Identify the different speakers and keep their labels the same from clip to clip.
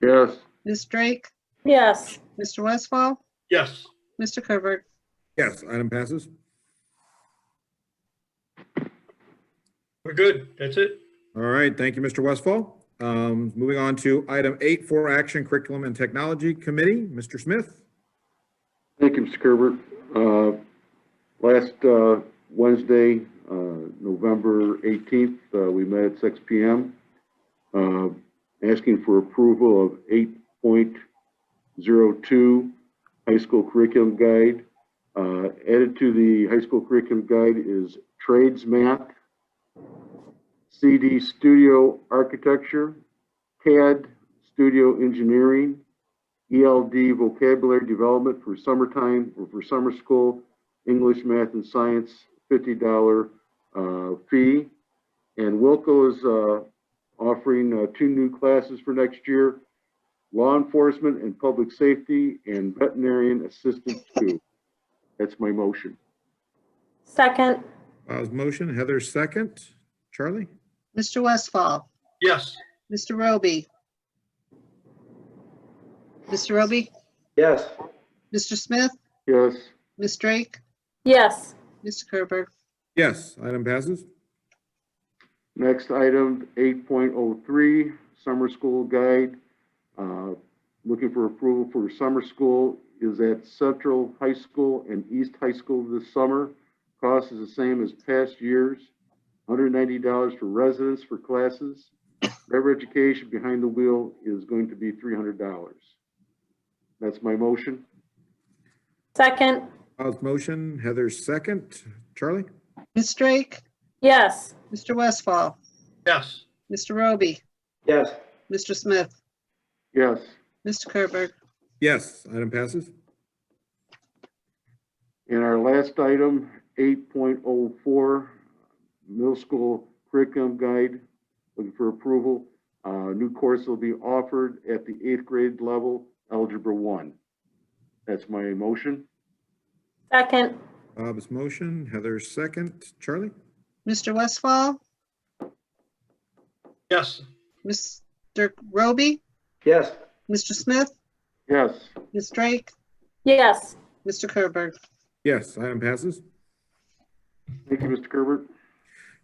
Speaker 1: Yes.
Speaker 2: Ms. Drake,
Speaker 3: yes,
Speaker 2: Mr. Westfall,
Speaker 4: Yes.
Speaker 2: Mr. Herbert.
Speaker 5: Yes, item passes.
Speaker 4: We're good. That's it.
Speaker 5: All right, thank you, Mr. Westfall. Um, Moving on to item eight, for action curriculum and technology committee, Mr. Smith.
Speaker 1: Thank you, Mr. Herbert. Uh, Last uh, Wednesday, uh, November 18th, uh, we met at 6 PM, uh, asking for approval of 8.02 High School Curriculum Guide. Uh, Added to the High School Curriculum Guide is Trades Math, CD Studio Architecture, CAD Studio Engineering, ELD E vocabulary development for summertime or for summer school, English, math, and science, fifty dollar uh, fee. And Wilco is uh, offering uh, two new classes for next year: law enforcement and public safety, and veterinarian assistance too. That's my motion.
Speaker 3: second,
Speaker 5: Bob's motion, Heather's second. Charlie?
Speaker 2: Mr. Westfall,
Speaker 4: Yes.
Speaker 2: Mr. Roby. Mr. Roby,
Speaker 6: yes,
Speaker 2: Mr. Smith,
Speaker 1: Yes.
Speaker 2: Ms. Drake,
Speaker 3: yes,
Speaker 2: Mr. Herbert.
Speaker 5: Yes, item passes.
Speaker 1: Next item, eight point oh three, summer school guide. Uh, Looking for approval for summer school is at Central High School and East High School this summer. Cost is the same as past years, hundred ninety dollars for residents for classes. Driver education behind the wheel is going to be three hundred dollars. That's my motion.
Speaker 3: second,
Speaker 5: Bob's motion, Heather's second. Charlie?
Speaker 2: Ms. Drake,
Speaker 3: yes,
Speaker 2: Mr. Westfall,
Speaker 4: Yes.
Speaker 2: Mr. Roby,
Speaker 6: yes,
Speaker 2: Mr. Smith,
Speaker 1: Yes.
Speaker 2: Mr. Herbert.
Speaker 5: Yes, item passes.
Speaker 1: And our last item, eight point oh four, middle school curriculum guide, looking for approval. Uh, new course will be offered at the eighth grade level, Algebra One. That's my motion.
Speaker 3: second,
Speaker 5: Bob's motion, Heather's second. Charlie?
Speaker 2: Mr. Westfall,
Speaker 4: Yes.
Speaker 2: Mr. Roby,
Speaker 6: yes,
Speaker 2: Mr. Smith,
Speaker 1: Yes,
Speaker 2: Ms. Drake,
Speaker 3: yes,
Speaker 2: Mr. Herbert.
Speaker 5: Yes, item passes.
Speaker 1: thank you, Mr. Gerbert.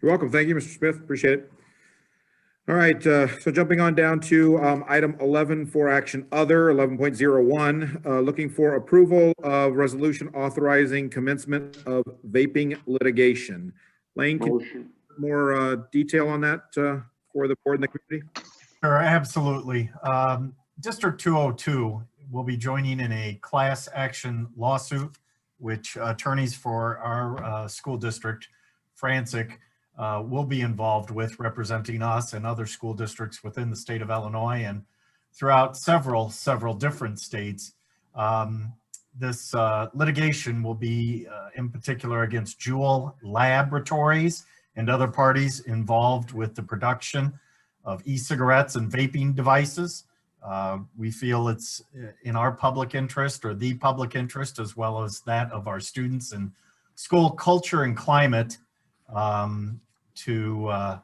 Speaker 5: You're welcome. Thank you, Mr. Smith. Appreciate it. All right, uh, so jumping on down to um, item 11 for action other, 11.01, uh, looking for approval of resolution authorizing commencement of vaping litigation. Lane, can you
Speaker 1: Motion.
Speaker 5: give more uh, detail on that uh, for the board and the community?
Speaker 7: Sure, absolutely. Um, District 202 will be joining in a class action lawsuit, which attorneys for our uh, school district, Frantic, uh, will be involved with representing us and other school districts within the state of Illinois and throughout several, several different states. Um, This uh, litigation will be uh, in particular against Jewel Laboratories and other parties involved with the production of e-cigarettes and vaping devices. Uh, We feel it's uh, in our public interest or the public interest as well as that of our students and school culture and climate um, to uh,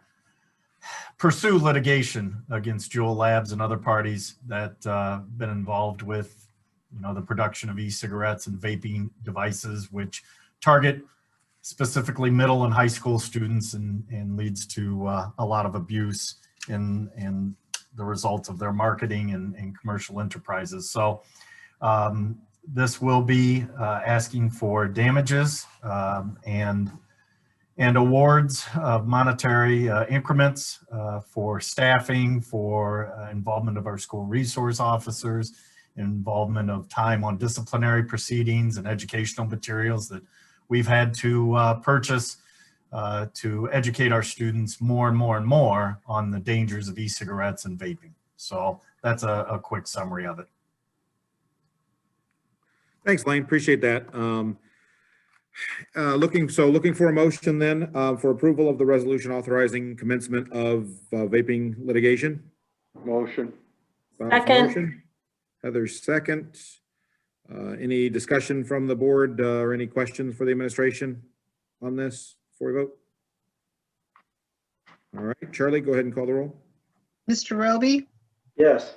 Speaker 7: pursue litigation against Juul Labs and other parties that uh, been involved with, you know, the production of e-cigarettes and vaping devices, which target specifically middle and high school students and, and leads to uh, a lot of abuse in, in the results of their marketing and, and commercial enterprises. So um, this will be uh, asking for damages um, and, and awards of monetary uh, increments uh, for staffing, for uh, involvement of our school resource officers, involvement of time on disciplinary proceedings and educational materials that we've had to uh, purchase uh, to educate our students more and more and more on the dangers of e-cigarettes and vaping. So that's a, a quick summary of it.
Speaker 5: Thanks, Lane. Appreciate that. Um, uh, Looking, so looking for a motion then uh, for approval of the resolution authorizing commencement of uh, vaping litigation.
Speaker 1: Motion.
Speaker 5: Bob's
Speaker 3: Second.
Speaker 5: motion, Heather's second. Uh, Any discussion from the board uh, or any questions for the administration on this before we vote? All right, Charlie, go ahead and call the roll.
Speaker 2: Mr. Roby,
Speaker 6: yes.